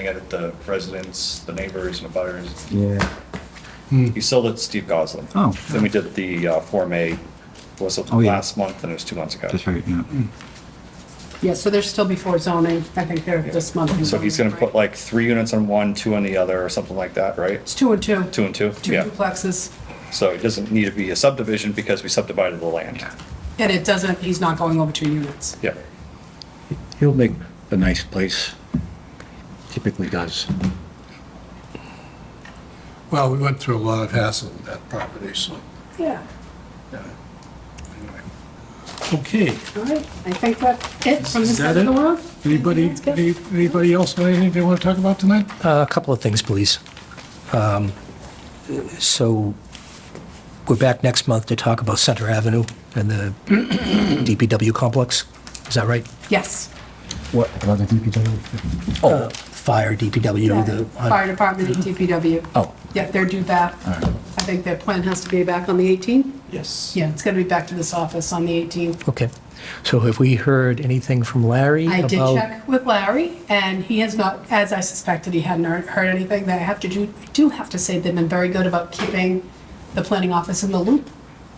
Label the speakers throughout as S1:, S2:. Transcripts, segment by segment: S1: yelling at the residents, the neighbors, and the butters.
S2: Yeah.
S1: He sold it to Steve Goslin.
S2: Oh.
S1: Then we did the uh, Form A, was it
S2: Oh, yeah.
S1: last month, and it was two months ago.
S2: That's right, yeah.
S3: Yeah, so they're still before zoning. I think they're this month. in
S1: So he's
S3: zoning,
S1: gonna put
S3: right?
S1: like three units on one, two on the other, or something like that, right?
S3: It's two and two.
S1: Two and two,
S3: Two
S1: yeah.
S3: duplexes.
S1: So it doesn't need to be a subdivision because we subdivided the land.
S3: And it doesn't, he's not going over two units.
S1: Yeah.
S2: He'll make a nice place. Typically does.
S4: Well, we went through a lot of hassle with that property, so,
S3: Yeah.
S4: yeah. Anyway. Okay,
S3: All right, I think that's it from this
S4: Is that
S3: side of the
S4: it?
S3: world.
S4: anybody,
S3: That's good.
S4: any- anybody else have anything they want to talk about tonight?
S5: Uh, A couple of things, please. Um, So we're back next month to talk about Center Avenue and the DPW complex. Is that right?
S3: Yes.
S2: What, about the DPW?
S5: Oh. Fire, DPW, the...
S3: Fire department and DPW.
S5: Oh,
S3: Yeah, they're due back. I think their plan has to be back on the 18th.
S1: Yes.
S3: Yeah, it's going to be back to this office on the 18th.
S5: okay. So have we heard anything from Larry
S3: I
S5: about...
S3: did check with Larry, and he has not, as I suspected, he hadn't heard- heard anything. That I have to do, I do have to say they've been very good about keeping the planning office in the loop,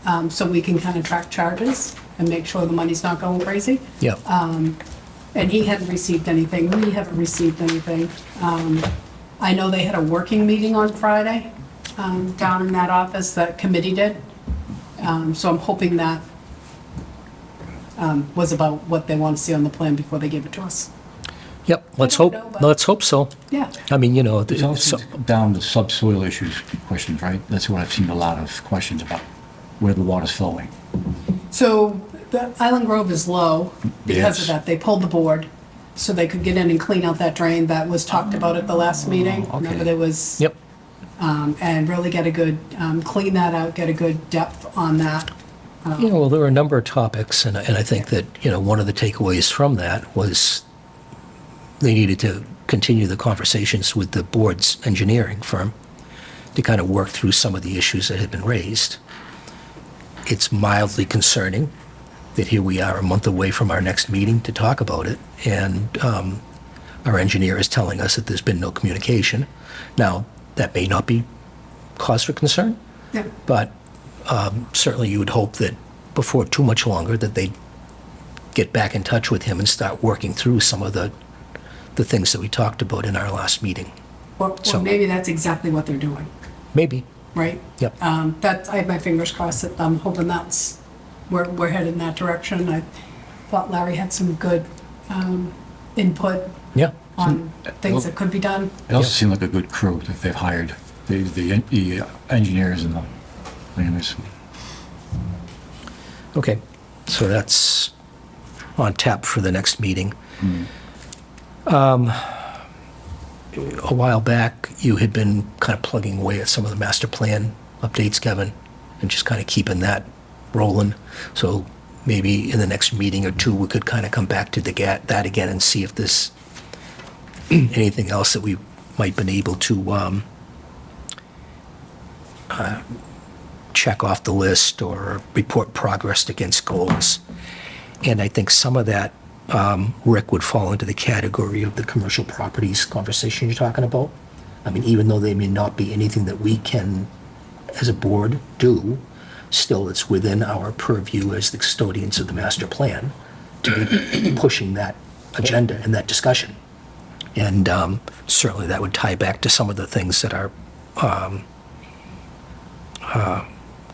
S3: um, so we can kind of track charges and make sure the money's not going crazy.
S5: Yeah.
S3: Um, And he hadn't received anything, we haven't received anything. Um, I know they had a working meeting on Friday um, down in that office, that committee did. Um, So I'm hoping that um, was about what they want to see on the plan before they give it to us.
S5: Yep, let's
S3: don't
S5: hope,
S3: know, but-
S5: let's hope so.
S3: Yeah,
S5: I mean, you know, the-
S2: It's also
S5: so-
S2: down to subsoil issues questions, right? That's what I've seen a lot of questions about, where the water's flowing.
S3: so the Island Grove is low because of
S2: Yes.
S3: that. They pulled the board so they could get in and clean out that drain that was talked about at the last meeting.
S2: okay.
S3: Remember, there was.
S5: Oh, yep,
S3: um, And really get a good, um, clean that out, get a good depth on that.
S5: Yeah, well, there were a number of topics, and, I- and I think that, you know, one of the takeaways from that was they needed to continue the conversations with the board's engineering firm to kind of work through some of the issues that had been raised. It's mildly concerning that here we are a month away from our next meeting to talk about it, and um, our engineer is telling us that there's been no communication. Now, that may not be cause for concern,
S3: Yeah.
S5: but um, certainly you would hope that before too much longer that they'd get back in touch with him and start working through some of the, the things that we talked about in our last meeting.
S3: Or, or
S5: So-
S3: maybe that's exactly what they're doing,
S5: Maybe.
S3: right?
S5: Yep.
S3: Um, that, I have my fingers crossed that I'm hoping that's, we're, we're headed in that direction. I thought Larry had some good, um, input
S5: Yeah.
S3: on
S5: Hmm.
S3: things that could be done.
S2: They also seem like a good crew that they've hired, the, the en- the engineers and the planners.
S5: Okay. So that's on tap for the next meeting. Um, a while back, you had been kind of plugging away at some of the master plan updates, Kevin, and just kind of keeping that rolling. So maybe in the next meeting or two, we could kind of come back to the ga- that again and see if there's anything else that we might been able to um, uh, check off the list or report progress against goals. And I think some of that, um, Rick, would fall into the category of the commercial properties conversation you're talking about. I mean, even though they may not be anything that we can, as a board, do, still it's within our purview as the custodians of the master plan to be pushing that agenda and that discussion. And um, certainly that would tie back to some of the things that are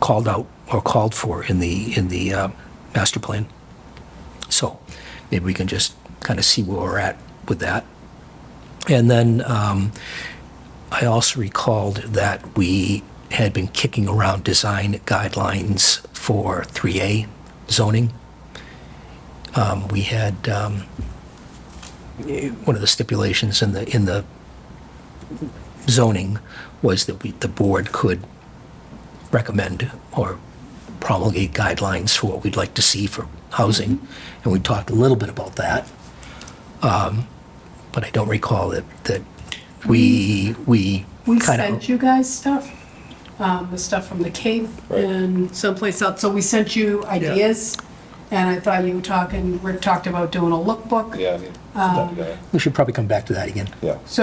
S5: called out or called for in the, in the uh, master plan. So maybe we can just kind of see where we're at with that. And then um, I also recalled that we had been kicking around design guidelines for 3A zoning. Um, We had, um, eh, one of the stipulations in the, in the zoning was that we, the board could recommend or promulgate guidelines for what we'd like to see for housing. And we talked a little bit about that. Um, But I don't recall that, that we, we
S3: We
S5: kind
S3: sent
S5: of,
S3: you guys stuff, um, the stuff from the cave and someplace else. So we sent you ideas. And I thought you were talking, Rick talked about doing a lookbook.
S1: Yeah. I mean, put that together.
S5: we should probably come back to that again.
S1: Yeah.